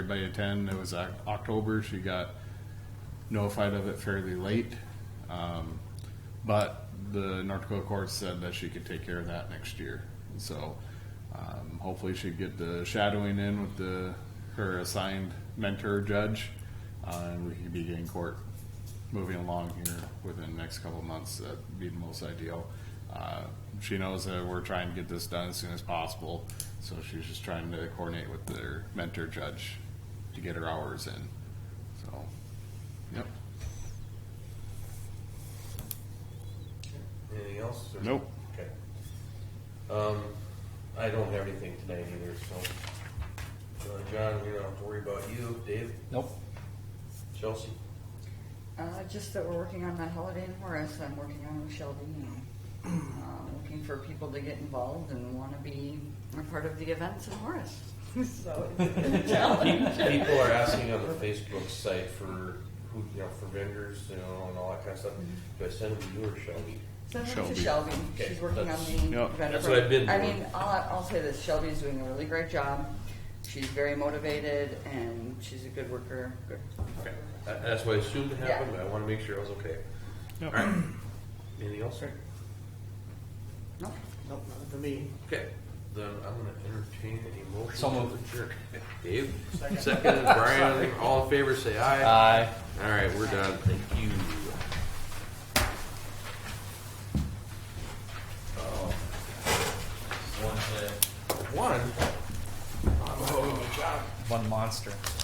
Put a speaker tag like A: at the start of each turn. A: everybody attend. It was Oc- October. She got notified of it fairly late. Um, but the North Dakota court said that she could take care of that next year. So um, hopefully she'd get the shadowing in with the her assigned mentor judge, uh, and we could be getting court moving along here within the next couple of months. That'd be the most ideal. Uh, she knows that we're trying to get this done as soon as possible, so she's just trying to coordinate with their mentor judge to get her hours in. So, yep.
B: Anything else? or-
A: Nope.
B: Okay. Um, I don't have anything tonight either, so. Uh, John, we don't have to worry about you. Dave,
A: Nope.
B: Chelsea,
C: Uh, just that we're working on my holiday in Horace, I'm working on with Shelby and, uh, looking for people to get involved and wanna be a part of the events in Horace. So it's been a challenge.
B: people are asking on the Facebook site for who, you know, for vendors, you know, and all that kind of stuff. Do I send them to you or Shelby?
C: Send them to
A: Shelby.
C: Shelby,
B: Okay,
C: she's working on
B: that's-
C: the
A: Yeah.
C: event.
B: That's what I've been
C: I
B: doing.
C: mean, I'll, I'll say this, Shelby's doing a really great job, she's very motivated and she's a good worker, good.
B: Okay. That- That's what I assumed happened, but I wanna make sure I was okay.
A: Yep.
B: Alright. Anything else, Rick?
C: No,
D: Nope, not for me.
B: Okay, then I'm gonna entertain a
E: So
B: motion to
E: moved.
B: adjourn. Dave, second, Brian, all in favor, say aye.
E: Aye.
B: All right, we're done, thank you.
E: One, uh,
B: Oh. One?
E: one monster.